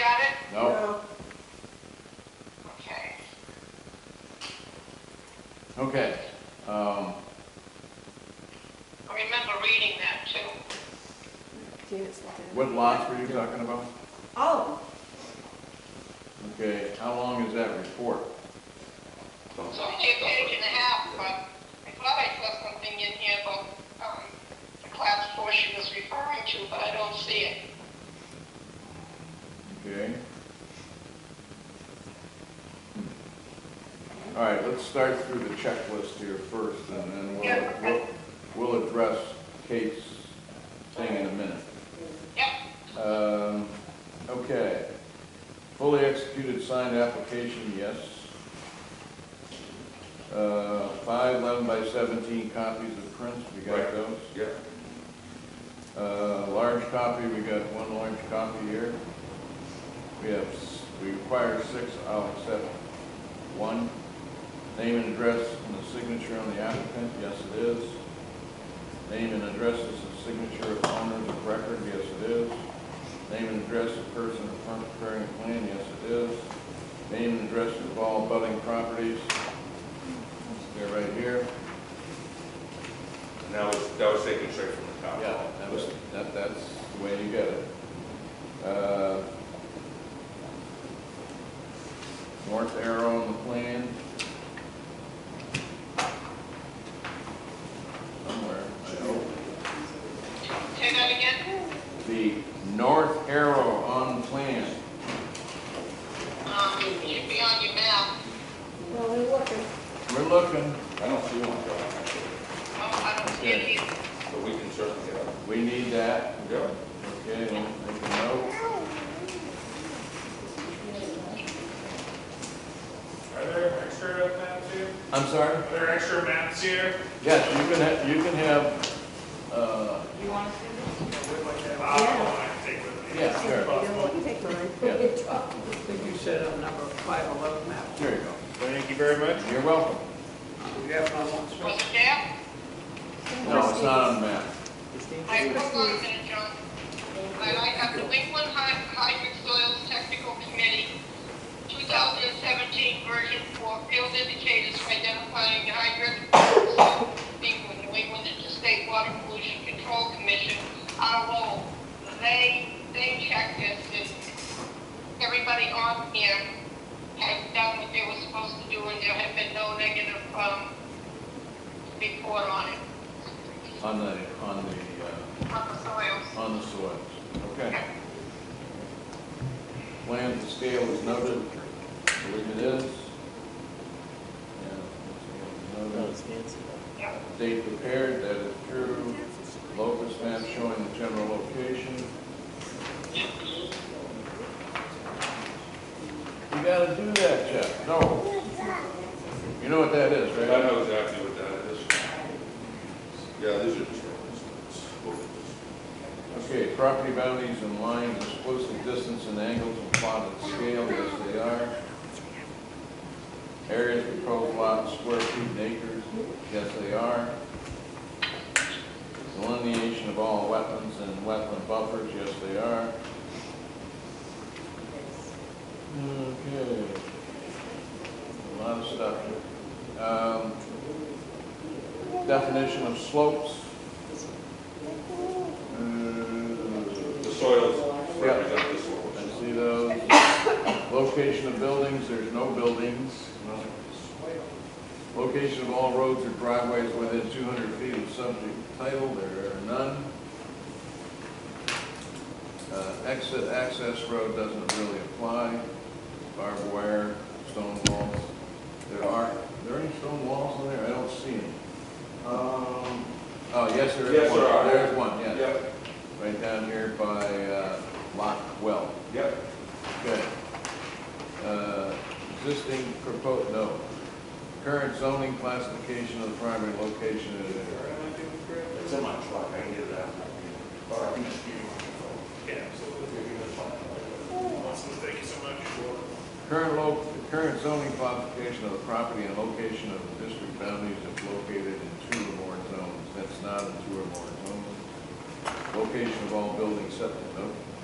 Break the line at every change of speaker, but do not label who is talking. at it?
No,
Okay.
okay. Um,
I remember reading that too.
Janet's looking.
what lots were you talking about?
Oh,
Okay, how long is that report?
It's only a page and a half, but I thought I saw something in here about, um, the class four she was referring to, but I don't see it.
Okay. Hmm. All right, let's start through the checklist here first, and then we'll,
Yeah.
we'll, we'll address Kate's thing in a minute.
Yep,
Um, okay. Fully executed signed application, yes. Uh, five eleven by seventeen copies of prints, we got
Right.
those.
Yeah.
Uh, large copy, we got one large copy here. We have, s- we require six, I'll accept one. Name and address and the signature on the applicant, yes it is. Name and addresses and signature of owners of record, yes it is. Name and address of person in front of preparing a plan, yes it is. Name and address of all budding properties. They're right here.
And that was, that was taken straight from the top.
Yeah, that was, that, that's the way you get it. Uh, North arrow on the plan. Somewhere, I hope.
say that again?
The north arrow on the plan.
Um, it should be on your map.
well, we're looking.
We're looking,
I don't see one, John, actually,
Oh, I don't see it either.
but we can certainly get it.
we need that.
Yeah.
Okay, let me make a note.
Are there extra maps here?
I'm sorry?
Are there extra maps here?
Yes, you can have, you can have, uh,
You want to see this? We'd like to have, I to take with me.
yeah, sure.
You know what, you take mine.
Yeah.
I think you said on number five eleven map,
Here you go.
Thank you very much.
You're welcome.
you have my one
Was
special.
it there?
No, it's not on the map.
I couldn't find it, John. I like up New England Hy- Hydric Soils Technical Committee, 2017 version for field indicators for identifying hydric soils being with New England State Water Pollution Control Commission, RO. They, they checked this, and everybody on here had done what they were supposed to do, and there had been no negative, um, report on it,
On the, uh, on the,
on the soils.
uh, on the soils. Okay. Plan to scale is noted, I believe it is. Yeah, plan to scale is
Yep.
noted. Date prepared, that is true. Locus map showing the general location. You gotta do that, Jeff, no. You know what that is,
I
right?
know exactly what that is. Yeah, these are the trails.
Okay, property boundaries and lines, explicit distance and angles and plotted scale, yes they are. Areas proposed lots, square feet and acres, yes they are. Delineation of all wetlands and wetland buffers, yes they are. Okay. A lot of stuff here. Um, definition of slopes. Uh,
The soils represent the
I
soils.
see those. Location of buildings, there's no buildings. Location of all roads or driveways within 200 feet of subject title, there are none. Uh, Exit access road doesn't really apply. Barbed wire, stone walls. There are, are there any stone walls in there? I don't see any.
Um,
Oh, yes, there is
Yes,
one.
there are.
There's one, yes.
Yep,
Right down here by uh, Lot 12.
yep.
Okay. Uh, Existing proposed, no. Current zoning classification of the primary location of the
It's in my truck, I can get it out. Or I can just give you my
Yeah, absolutely.
phone.
Awesome, thank you so much.
Current lo, current zoning classification of the property and location of the district boundaries if located in two or more zones. That's not in two or more zones. Location of all buildings, septic, no,